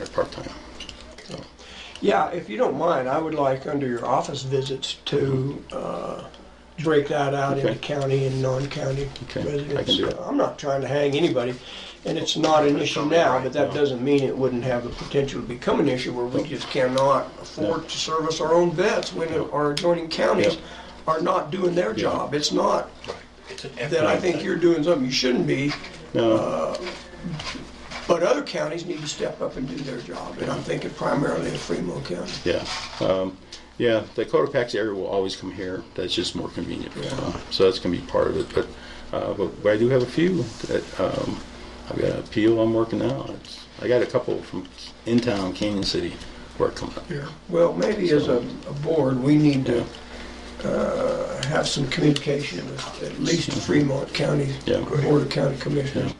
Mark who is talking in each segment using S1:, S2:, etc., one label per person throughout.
S1: or part-time.
S2: Yeah, if you don't mind, I would like under your office visits to uh, break that out into
S1: Okay.
S2: county and non-county
S1: Okay, I can
S2: residents.
S1: do it.
S2: I'm not trying to hang anybody, and it's not an issue now, but that
S1: No.
S2: doesn't mean it wouldn't have the potential to become an issue where we just cannot afford to service our own vets when our adjoining counties are not doing their
S1: Yeah.
S2: job. It's not
S3: It's an
S2: that I
S3: effort.
S2: think you're doing something you shouldn't be,
S1: No,
S2: but other counties need to step up and do their job, and I'm thinking primarily of Fremont County.
S1: yeah, um, yeah, the Cotopaxi area will always come here, that's just more convenient. Uh, So that's gonna be part of it, but, uh, but but I do have a few that, um, I've got an appeal I'm working out. It's- I got a couple from in town, Canyon City, where I come up.
S2: Yeah, well, maybe as a, a board, we need to uh, have some communication with at least the Fremont County
S1: Yeah.
S2: Board of County Commissioners.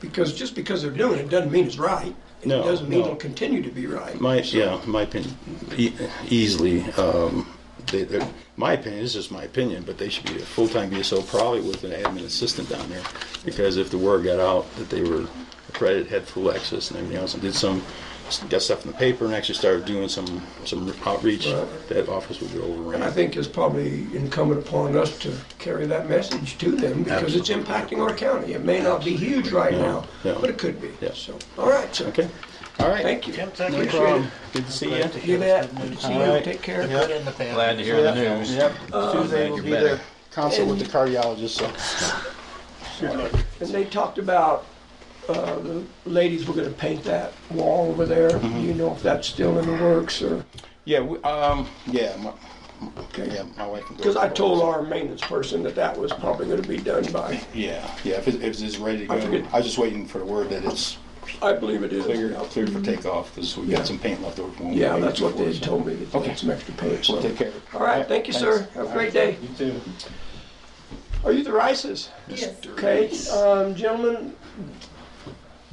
S2: Because, just because they're doing it doesn't mean it's right. and It
S1: No,
S2: doesn't mean
S1: no.
S2: it'll continue to be right.
S1: My, yeah, my opinion, e- easily, um, they, they're- my opinion, this is my opinion, but they should be a full-time BSO probably with an admin assistant down there. Because if the word got out that they were accredited, had full access and everything else, and did some, got stuff in the paper and actually started doing some, some outreach,
S2: Right.
S1: that office would be overrun.
S2: And I think it's probably incumbent upon us to carry that message to them because it's impacting our county. It may not be huge right
S1: Yeah,
S2: now,
S1: yeah.
S2: but it could be.
S1: Yeah.
S2: So, all right, sir.
S1: Okay, all right.
S2: Thank you.
S3: Tim, thank
S1: No
S3: you.
S1: problem. Good to see you.
S3: Glad to hear
S2: You bet.
S3: some news.
S2: See you.
S1: right.
S2: Take care.
S3: The good and the bad.
S4: Glad to hear the
S1: Yeah,
S4: news.
S1: Yep,
S3: Uh,
S1: Tuesday
S4: Glad
S1: will
S4: you're
S1: be
S4: better.
S1: the consult with the cardiologist, so.
S2: And they talked about, uh, the ladies were gonna paint that wall over there.
S1: Mm-hmm.
S2: Do you know if that's still in the works or?
S1: Yeah, we, um, yeah, my, yeah,
S2: okay?
S1: my wife. can go
S2: Cause I
S1: over it.
S2: told our maintenance person that that was probably gonna be done by,
S1: Yeah, yeah, if it's, if it's ready to go.
S2: I forget.
S1: I was just waiting for the word that it's
S2: I believe it is.
S1: cleared, cleared for takeoff, because we've
S2: Yeah.
S1: got some paint left over. from when we
S2: Yeah,
S1: made
S2: that's
S1: it
S2: what they
S1: before,
S2: had
S1: so
S2: told me, that they
S1: Okay.
S2: had some extra paint, so.
S1: We'll take care of it.
S2: All right, thank you, sir.
S1: thanks.
S2: Have a
S1: All
S2: great
S1: right.
S2: day.
S1: You too.
S2: Are you the Rices?
S5: Yes.
S2: Okay, um, gentlemen,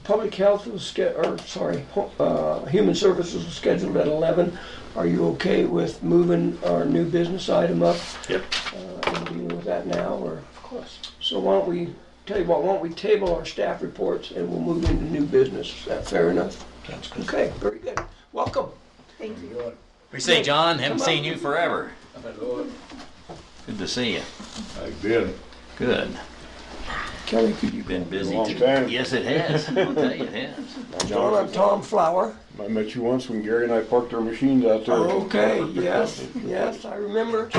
S2: public health was, sch- or, sorry, hu- uh, human services was scheduled at eleven. Are you okay with moving our new business item up?
S1: Yep.
S2: Uh, and dealing with that now, or? Of course. So why don't we, tell you what, why don't we table our staff reports and we'll move into new business? Is that fair enough?
S3: Sounds good.
S2: Okay, very good. Welcome.
S5: Thank you.
S4: We see John. Haven't
S2: Come on.
S4: seen you forever. Good to see you.
S6: Oh, I've been
S4: Good.
S2: Kelly, could you?
S4: You've been busy.
S6: Long
S4: too.
S6: time.
S4: Yes, it has. I'll tell you, it has.
S2: John, I'm Tom Flower.
S6: I met you once when Gary and I parked our machines out there.
S2: Okay, yes, yes, I remember.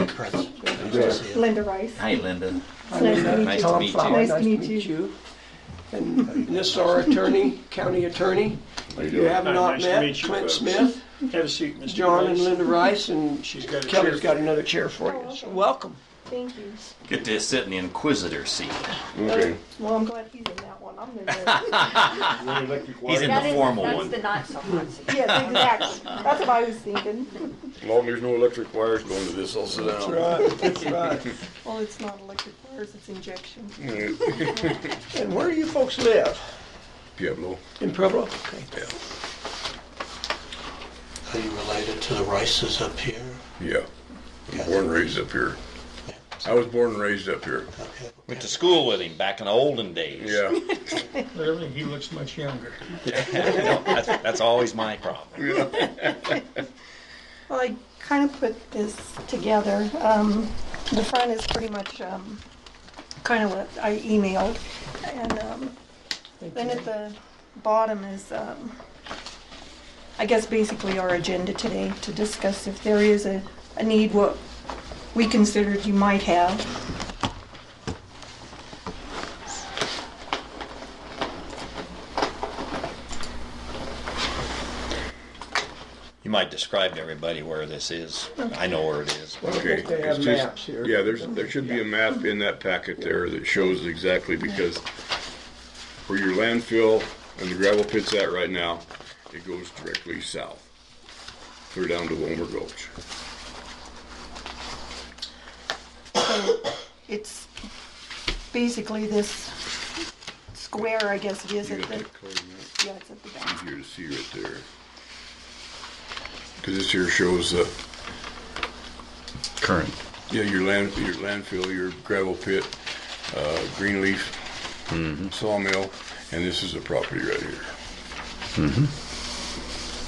S5: Linda Rice.
S4: Hi, Linda.
S2: I
S5: Nice
S2: remember.
S5: to meet you.
S2: Tom
S4: Nice to
S2: Flower,
S5: meet you. Nice to
S2: And this is our attorney, county attorney. You
S6: doing?
S2: have not
S7: Nice to
S2: met
S7: meet you,
S2: Clint
S7: folks.
S2: Smith,
S7: Have a seat, Mr.
S2: John and
S7: Rice.
S2: Linda Rice, and
S7: She's got a
S2: Kelly's
S7: chair.
S2: got another chair for
S5: Oh,
S2: you.
S5: okay.
S2: So welcome.
S5: Thank you.
S4: Good to sit in the inquisitor seat.
S6: Okay.
S5: Well, I'm glad he's in that one. I'm in there.
S4: He's in the formal one.
S8: not so much.
S5: yes, exactly. That's what I was thinking.
S6: As long as there's no electric wires going to this, I'll sit down.
S2: right, that's right.
S5: Well, it's not electric wires, it's injection.
S2: And where do you folks live?
S6: Pueblo.
S2: In Pueblo? Okay.
S3: Are you related to the Rices up here?
S6: Yeah. I'm born and raised up here. I was born and raised up here.
S3: Okay.
S4: Went to school with him back in the olden days.
S6: Yeah.
S2: Clearly, he looks much younger.
S4: No, that's, that's always my problem.
S5: Well, I kind of put this together. Um, the front is pretty much um, kind of what I emailed. And um, then at the bottom is, um, I guess, basically our agenda today to discuss if there is a, a need, what we considered you might have.
S4: You might describe to everybody where this is. I know where it is.
S6: Okay.
S2: They have
S6: it's just-
S2: maps here.
S6: Yeah, there's, there should be a map in that packet there that shows exactly because where your landfill and the gravel pit's at right now, it goes directly south. Clear down to Wilmer Gulch.
S5: So it's basically this square, I guess it is.
S6: You
S5: At
S6: got
S5: the,
S6: that colored map?
S5: yeah, it's at the back.
S6: here to see right there. Because this here shows the,
S4: Current.
S6: yeah, your land, your landfill, your gravel pit, uh, green leaf, sawmill, and this is the property right here.